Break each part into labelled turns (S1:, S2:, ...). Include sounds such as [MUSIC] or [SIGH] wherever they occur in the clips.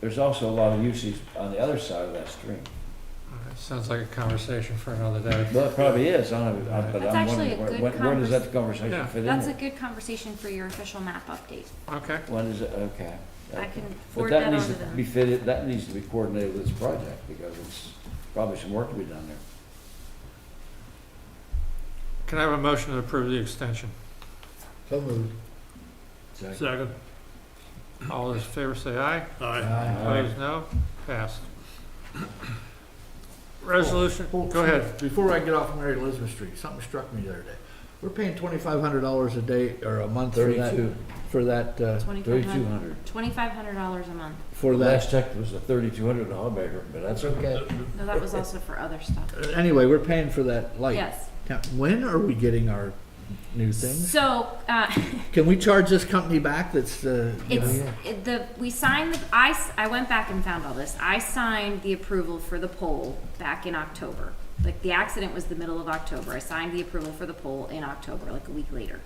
S1: there's also a lot of usage on the other side of that stream.
S2: Alright, Sounds like a conversation for another day.
S1: Well, it probably is, I don't know, I- but
S3: That's
S1: I'm
S3: actually a
S1: wondering, where,
S3: good
S1: when- where does that
S2: Yeah.
S1: conversation fit in?
S3: That's a
S1: there?
S3: good conversation for your official map update.
S2: Okay,
S1: When is it, okay.
S3: I
S1: okay.
S3: can
S1: But
S3: forward
S1: that
S3: that on
S1: needs
S3: to
S1: to be
S3: them.
S1: fitted, that needs to be coordinated with this project, because it's probably some work to be done there.
S2: can I have a motion to approve the extension?
S4: So moved.
S2: Second. All those in favor say aye. Opposed, no. Passed. Resolution,
S4: Well,
S2: go ahead.
S4: Before I get off Mary Elizabeth Street, something struck me the other day. We're paying twenty-five hundred dollars a day or a month for that,
S1: Thirty-two,
S4: for that, uh,
S1: thirty-two
S3: Twenty-five
S1: hundred.
S3: hundred dollars a month.
S4: for that.
S1: Last check was a thirty-two hundred dollar maker, but that's okay.
S3: No, that was also for other stuff.
S4: Uh, Anyway, we're paying for that light.
S3: Yes.
S4: Now, When are we getting our new things?
S3: So, uh,
S4: Can we charge this company back that's, uh, you know,
S3: It's, it- the, we signed, the I, s- I went back and found all this. I signed the approval for the poll back in October. Like, the accident was the middle of October. I signed the approval for the poll in October, like a week later.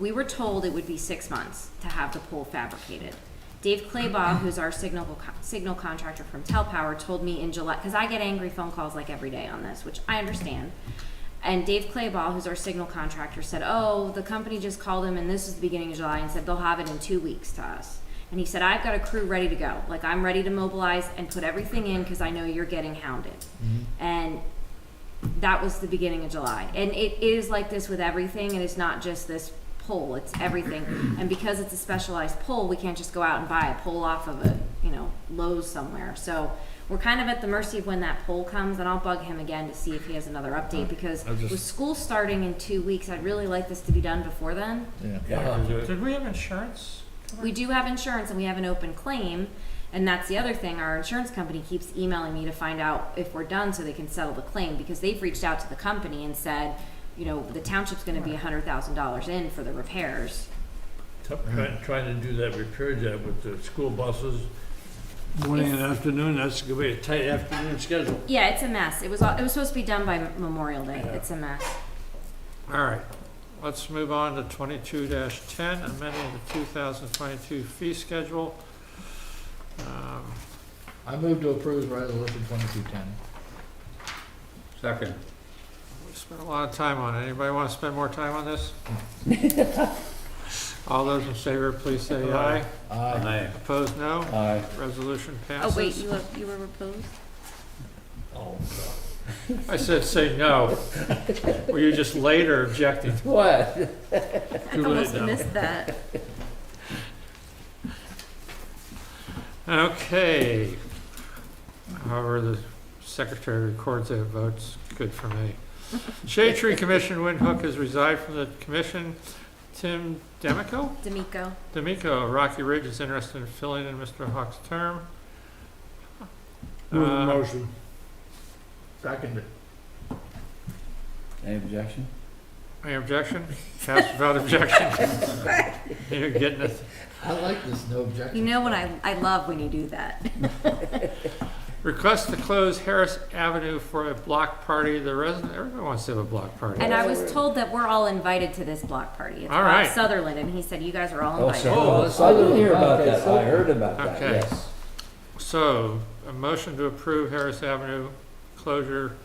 S3: We were told it would be six months to have the poll fabricated. Dave Claybaugh, who's our signal, co- signal contractor from Telpower, told me in July, because I get angry phone calls like every day on this, which I understand. And Dave Clayball, who's our signal contractor, said, Oh, the company just called him, and this is the beginning of July, and said they'll have it in two weeks to us. And he said, I've got a crew ready to go. Like, I'm ready to mobilize and put everything in because I know you're getting hounded.
S4: Mm-hmm.
S3: And that was the beginning of July. And it is like this with everything, and it's not just this pole, it's everything. And because it's a specialized pole, we can't just go out and buy a pole off of a, you know, Lowe's somewhere. So we're kind of at the mercy of when that pole comes, and I'll bug him again to see if he has another update, because
S4: I just-
S3: with school starting in two weeks, I'd really like this to be done before then.
S4: yeah.
S2: Did we have insurance?
S3: We do have insurance and we have an open claim, and that's the other thing, our insurance company keeps emailing me to find out if we're done so they can settle the claim, because they've reached out to the company and said, you know, the township's gonna be a hundred thousand dollars in for the repairs.
S5: Trying, trying to do that repair job with the school buses, morning and
S3: It's-
S5: afternoon, that's gonna be a tight afternoon schedule.
S3: Yeah, it's a mess, it was, all- it was supposed to be done by Memorial Day,
S5: Yeah.
S3: it's a mess.
S2: All right, let's move on to twenty-two ten, amending the two thousand twenty-two fee schedule. Um,
S4: I move to approve resolution twenty-two ten.
S5: Second.
S2: We spent a lot of time on it. Anybody want to spend more time on [LAUGHS] this? All those in favor, please say aye.
S4: Aye.
S5: Aye.
S2: Opposed, no.
S1: Aye.
S2: Resolution passes.
S3: Oh, you were opposed?
S2: I said, say no. Were you just later objecting?
S1: What?
S3: I
S2: Too almost late now. missed [LAUGHS]
S3: that.
S2: Okay. However, the secretary records their votes, good for me. Shade Tree Commission, Windhoek has resigned from the commission. Tim Demico?
S3: D'Amico,
S2: D'Amico, of Rocky Ridge is interested in filling in Mr. Hawk's term. Uh,
S5: motion.
S4: Second.
S1: Any objection?
S2: Any objection? Passed without objection. You're getting it.
S4: I like this, no objection.
S3: you know what I, I love when you do that.
S2: Request to close Harris Avenue for a block party. The resident, everyone wants to have a block party.
S3: And I was told that we're all invited to this block party. It's
S2: All
S3: Bob
S2: right.
S3: Sutherland, and he said you guys are all
S1: Oh,
S3: invited.
S1: so,
S5: Oh,
S1: oh, I didn't hear about
S4: okay,
S1: that,
S4: so-
S1: I heard about that,
S2: Okay.
S1: yes.
S2: So, a motion to approve Harris Avenue closure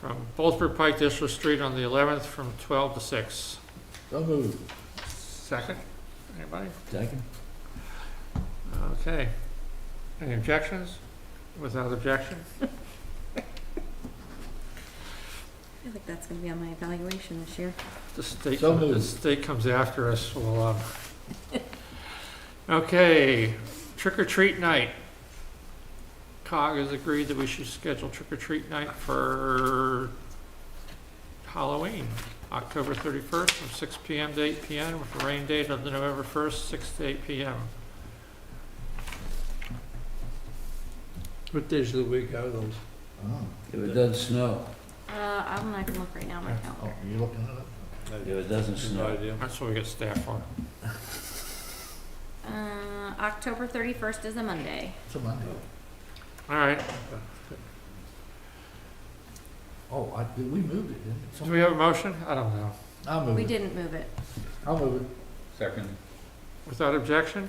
S2: from Bolzberg Pike District Street on the 11th from 12 to 6.
S4: So moved.
S2: Second? Anybody?
S1: Second?
S2: Okay. Any objections? Without objection?
S3: I feel like that's going to be on my evaluation this year.
S2: The state,
S4: So
S2: the
S4: moved.
S2: state comes after us, well, um. Okay, trick or treat night. COG has agreed that we should schedule trick or treat night for Halloween, October thirty-first, from six P M to eight P M, with a rain date of the November first, six to eight P M.
S5: What days of the week are those?
S4: Oh,
S1: If it doesn't snow,
S3: Uh, I'm not going to look right now on my
S4: oh,
S3: calendar.
S4: you looking it up?
S1: if it doesn't
S5: No
S1: snow.
S5: idea.
S2: That's what we get staff for.
S3: Uh, October 31st is a Monday.
S4: It's a Monday.
S2: All right,
S4: Oh, I, did we moved it, didn't
S2: do we have a motion? I don't know.
S4: Oh, I'll move it.
S3: We didn't move it.
S4: I'll move it.
S5: Second.
S2: Without objection?